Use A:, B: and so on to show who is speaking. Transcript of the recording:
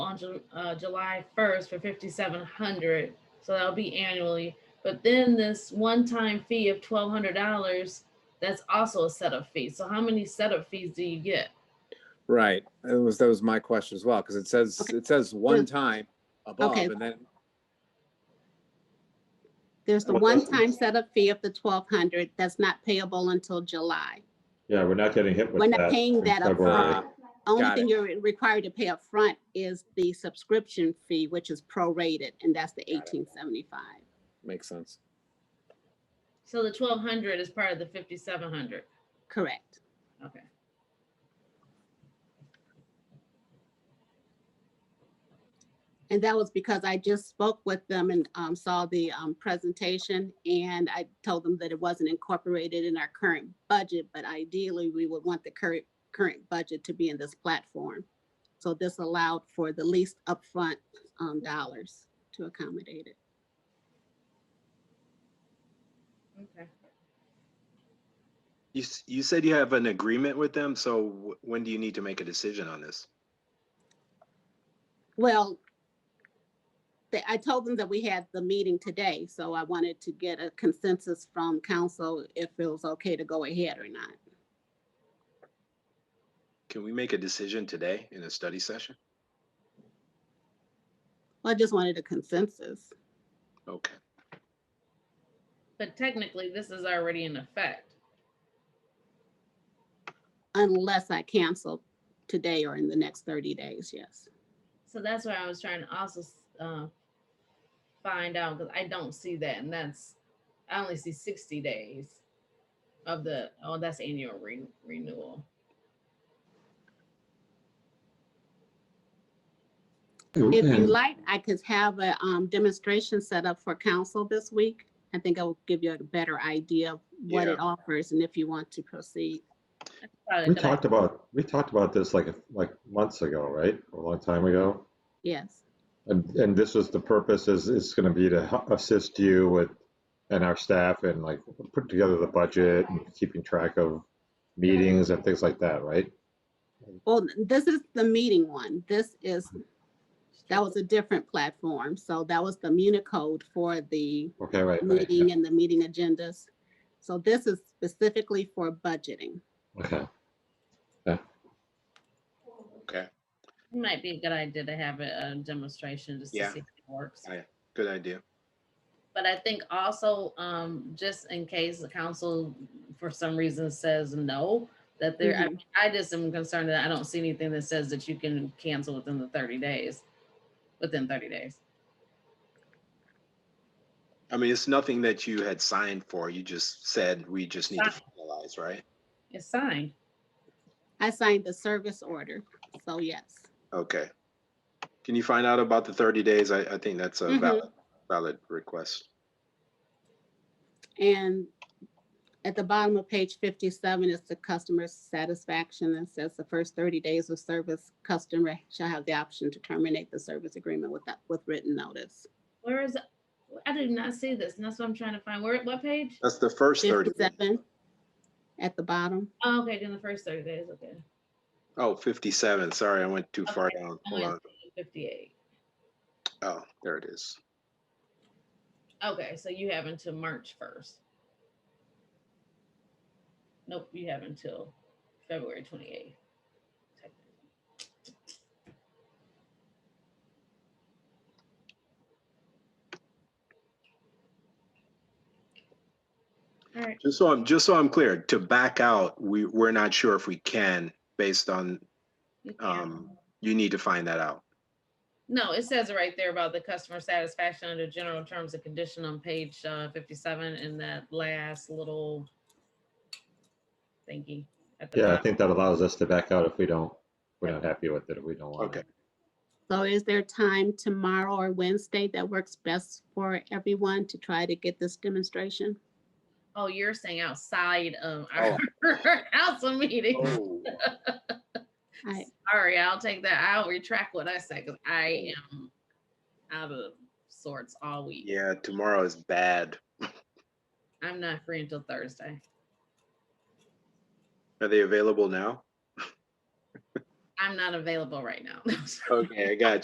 A: on Ju- uh, July first for fifty-seven hundred, so that'll be annually. But then this one-time fee of twelve hundred dollars, that's also a setup fee. So how many setup fees do you get?
B: Right, that was, that was my question as well, because it says,
C: Okay.
B: it says one time above,
C: Okay.
B: and then,
C: There's the
D: Well,
C: one-time setup fee of the twelve hundred that's not payable until July.
D: Yeah, we're not getting hit with
C: We're
D: that.
C: not paying
D: in
C: that
D: February.
B: ah,
C: upfront. Only
B: Got
C: thing
B: it.
C: you're required to pay upfront is the subscription fee, which is prorated, and that's the eighteen seventy-five.
B: makes sense.
A: So the twelve hundred is part of the fifty-seven hundred.
C: Correct.
A: Okay.
C: And that was because I just spoke with them and um, saw the um, presentation, and I told them that it wasn't incorporated in our current budget, but ideally, we would want the current, current budget to be in this platform. So this allowed for the least upfront um, dollars to accommodate it.
A: Okay.
E: You, s- you said you have an agreement with them, so wh- when do you need to make a decision on this?
C: Well, they- I told them that we had the meeting today, so I wanted to get a consensus from council if it was okay to go ahead or not.
E: Can we make a decision today in a study session?
C: I just wanted a consensus.
E: Okay.
A: But technically, this is already in effect.
C: unless I cancel today or in the next thirty days, yes.
A: So that's where I was trying to also s- uh, find out because I don't see that, and that's I only see sixty days of the oh that's annual re- renewal.
C: If you
D: And-
C: like, I could have a um demonstration set up for council this week. I think I will give you a better idea of what it offers and if you want to proceed.
A: Probably
D: We
A: a good idea.
D: talked about, we talked about this like, a- like months ago, right? A long time ago.
C: Yes,
D: And, and this was the purpose is, is going to be to hu- assist you with, and our staff and like putting together the budget and keeping track of meetings and things like that, right?
C: well, this is the meeting one. This is, that was a different platform. So that was the Municode for the
D: Okay, right, right. yeah,
C: meeting and the meeting agendas. So this is specifically for budgeting.
D: Okay.
E: Okay,
A: It might be a good idea to have a, a demonstration just
E: Yeah.
A: to see if it works.
E: I- good idea.
A: But I think also, um, just in case the council for some reason says no, that there, I
C: Mhm.
A: mean, I just am concerned that I don't see anything that says that you can cancel within the thirty days, within thirty days.
E: I mean, it's nothing that you had signed for. You just said we just need to finalize, right?
A: It's signed.
C: I signed the service order, so yes.
E: Okay. Can you find out about the 30 days? I, I think that's a
C: Mhm.
E: valid, valid request.
C: And at the bottom of page fifty-seven is the customer satisfaction and says the first thirty days of service, customer shall have the option to terminate the service agreement with that, with written notice.
A: Where is, I did not see this, and that's what I'm trying to find. Where, what page?
E: That's the first 30.
C: Fifty-seven at the bottom.
A: Oh, okay, then the first thirty days, okay.
E: Oh, 57. Sorry, I went too far
A: Okay,
E: down.
A: I
E: Hold on.
A: went to Fifty-eight.
E: Oh, there it is.
A: Okay, so you have until March first. Nope, you have until February twenty-eighth. All right,
E: Just so I'm, just so I'm clear, to back out, we, we're not sure if we can based on,
A: you can.
E: um, you need to find that out.
A: No, it says it right there about the customer satisfaction under general terms and condition on page uh, fifty-seven in that last little thingy. at the
D: Yeah, I
A: bottom.
D: think that allows us to back out if we don't, we're not happy with it, if we don't want
E: Okay.
D: it.
C: So is there time tomorrow or Wednesday that works best for everyone to try to get this demonstration?
A: Oh, you're saying outside of our council meeting.
E: Oh,
C: I,
A: Sorry, I'll take that. I'll retract what I said because I am out of sorts all week.
E: Yeah, tomorrow is bad.
A: I'm not free until Thursday.
E: Are they available now?
A: I'm not available right now.
E: Okay, I got